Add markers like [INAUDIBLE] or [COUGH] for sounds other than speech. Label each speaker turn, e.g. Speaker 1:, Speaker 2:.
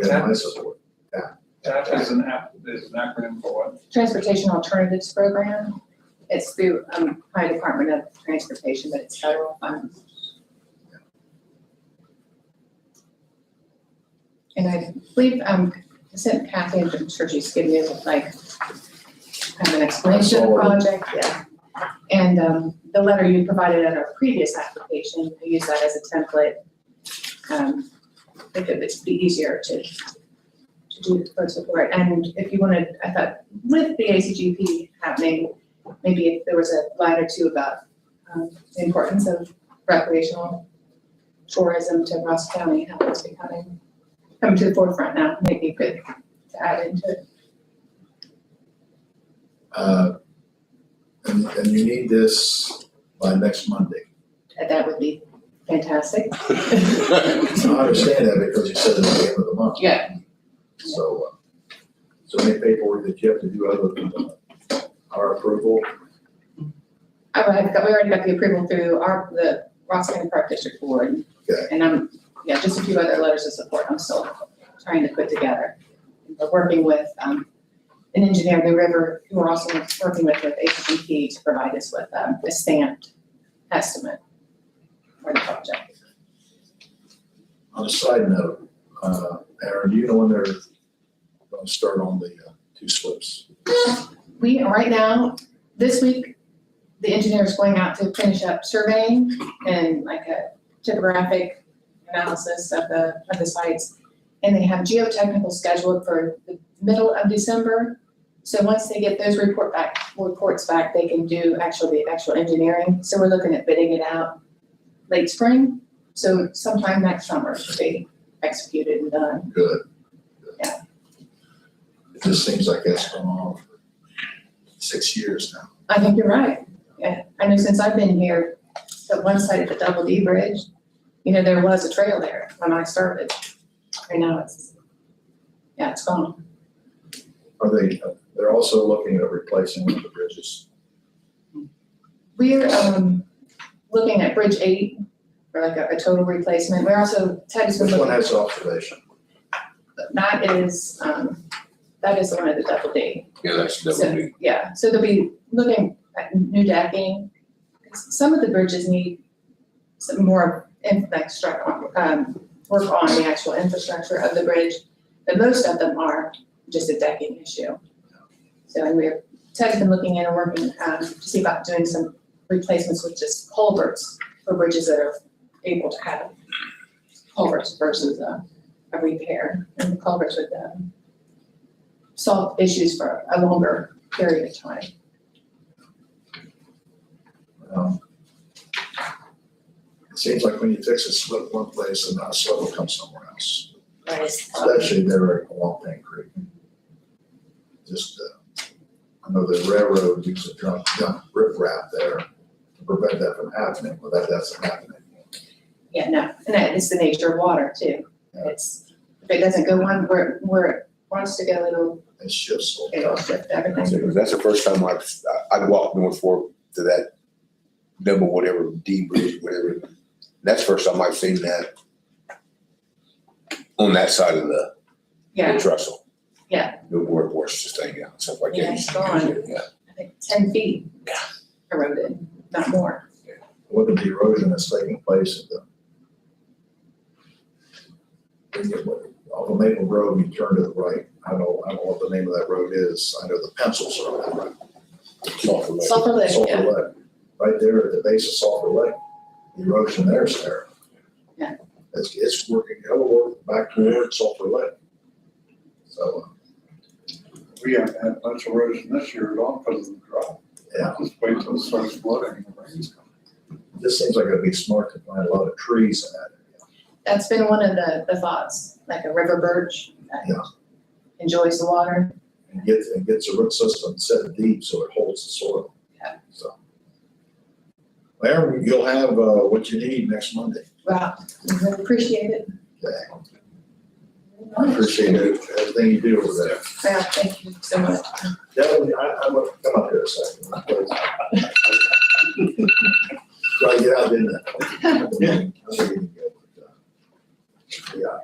Speaker 1: You have my support.
Speaker 2: TAP is an app, is an acronym for what?
Speaker 3: Transportation Alternatives Program. It's through, um, my Department of Transportation, but it's federal funds. And I believe, um, I sent Kathy, I'm sure she's giving you like kind of an explanation of the project, yeah. And, um, the letter you provided at our previous application, I use that as a template. Um, I think it would be easier to, to do for support. And if you wanted, I thought with the ACGP happening, maybe if there was a line or two about um, the importance of recreational tourism to Ross County, how it's becoming, coming to the forefront now, maybe you could add into it.
Speaker 1: Uh, And, and you need this by next Monday.
Speaker 3: That- That would be fantastic.
Speaker 1: I understand that because you said it at the end of the month.
Speaker 3: Yeah.
Speaker 1: So, uh, so any paperwork that you have to do other than uh, our approval,
Speaker 3: I would have, we already got the approval through our, the Ross County Park District Board.
Speaker 1: Okay.
Speaker 3: And I'm, yeah, just a few other letters of support I'm still trying to put together. But working with, um, an engineer in the river who we're also working with with HGP to provide us with, um, a stamped estimate for the project.
Speaker 1: on a side note, uh, Aaron, do you know when they're gonna start on the uh, two slips?
Speaker 3: We, right now, this week, the engineer is going out to finish up surveying and like a topographic analysis of the, of the sites. And they have geotechnical scheduled for the middle of December. So once they get those report back, reports back, they can do actual, the actual engineering. So we're looking at bidding it out late spring. So sometime next summer should be executed and done.
Speaker 1: Good.
Speaker 3: Yeah.
Speaker 1: It just seems like that's gone on for six years now.
Speaker 3: I think you're right. Yeah, I know since I've been here, the one side of the Double D Bridge, you know, there was a trail there when I started. And now it's, yeah, it's gone.
Speaker 1: Are they, uh, they're also looking at replacing one of the bridges.
Speaker 3: We're, um, looking at Bridge Eight, for like a, a total replacement. We're also, Ted has been
Speaker 1: Which one
Speaker 3: looking,
Speaker 1: has observation?
Speaker 3: that is, um, that is the one of the Double D.
Speaker 4: Yeah, that's
Speaker 3: So,
Speaker 4: double D.
Speaker 3: Yeah, so they'll be looking at new decking. Some of the bridges need some more infrastructure, um, work on the actual infrastructure of the bridge. But most of them are just a decking issue. So, and we're, Ted's been looking in and working, um, to see about doing some replacements with just culverts for bridges that are able to have culverts versus a, a repair. And the culverts would, um, solve issues for a longer period of time.
Speaker 1: Um, It seems like when you fix a slip one place, and that slip will come somewhere else,
Speaker 3: Um,
Speaker 1: especially there at Walpin Creek. Just, uh, I know the railroad used to dump, dump riprap there to prevent that from happening, but that doesn't happen anymore.
Speaker 3: Yeah, no, and that is the nature of water too. It's, if it doesn't go one where, where it wants to go, it'll,
Speaker 1: It shifts all the
Speaker 3: it'll
Speaker 1: time.
Speaker 3: shift everything.
Speaker 4: That's the first time I've, I've walked North Fork to that double whatever D bridge, whatever. That's the first time I've seen that on that side of the the
Speaker 3: Yeah,
Speaker 4: trestle.
Speaker 3: Yeah.
Speaker 4: The workforce just hanging out, stuff like that.
Speaker 3: Yeah, it's gone.
Speaker 4: Yeah.
Speaker 3: I think ten feet eroded, not more.
Speaker 1: Look at the erosion that's taking place at the. when you- Off of Maple Road, you turn to the right, I know, I don't know what the name of that road is, I know the pencils are on that road.
Speaker 4: Sulphur Lake.
Speaker 3: Sulfur Lake,
Speaker 1: Sulphur
Speaker 3: yeah,
Speaker 1: Lake, right there at the base of Sulphur Lake, the erosion there's there.
Speaker 3: Yeah.
Speaker 1: It's, it's working, it'll work back toward Sulphur Lake. So, uh,
Speaker 2: We haven't had much erosion this year at all because of the drought.
Speaker 1: Yeah.
Speaker 2: Just wait till it starts flooding and the rains come.
Speaker 1: it just seems like it'd be smart to plant a lot of trees in that area.
Speaker 3: that's been one of the, the thoughts, like a river birch
Speaker 1: Yeah.
Speaker 3: that enjoys the water.
Speaker 1: And gets, and gets a root system set deep so it holds the soil.
Speaker 3: Yeah.
Speaker 1: So. Larry, you'll have, uh, what you need next Monday.
Speaker 3: Wow, I appreciate it.
Speaker 1: Okay. I appreciate it, everything you do over there.
Speaker 3: Yeah, thank you so much.
Speaker 1: Definitely, I, I'm, gonna- come up here a second. [LAUGHS] Try to get out, didn't I? Yeah.